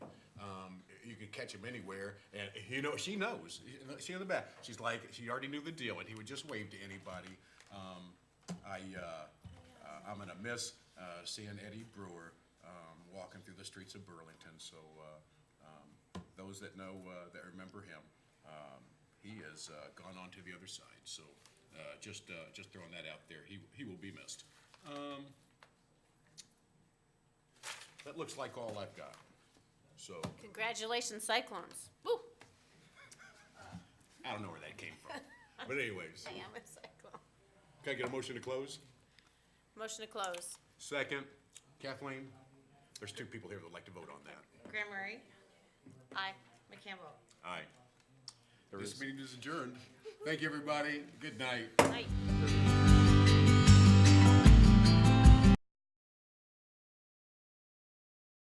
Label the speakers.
Speaker 1: Um, catch him anywhere. And you know, she knows. She in the back. She's like, she already knew the deal, and he would just wave to anybody. Um, I, uh, uh, I'm gonna miss uh, seeing Eddie Brewer um, walking through the streets of Burlington. So uh, um, those that know, uh, that remember him, um, he has uh, gone on to the other side. So uh, just, uh, just throwing that out there. He, he will be missed. That looks like all I've got. So
Speaker 2: Congratulations, Cyclones. Woo!
Speaker 1: I don't know where that came from. But anyways,
Speaker 2: I am a cyclone.
Speaker 1: can I get a motion to close?
Speaker 2: Motion to close.
Speaker 1: Second. Kathleen? There's two people here that would like to vote on that.
Speaker 3: Graham Murray,
Speaker 2: Aye.
Speaker 3: McCambell.
Speaker 1: Aye. This meeting is adjourned. Thank you, everybody. Good night.
Speaker 2: Aye.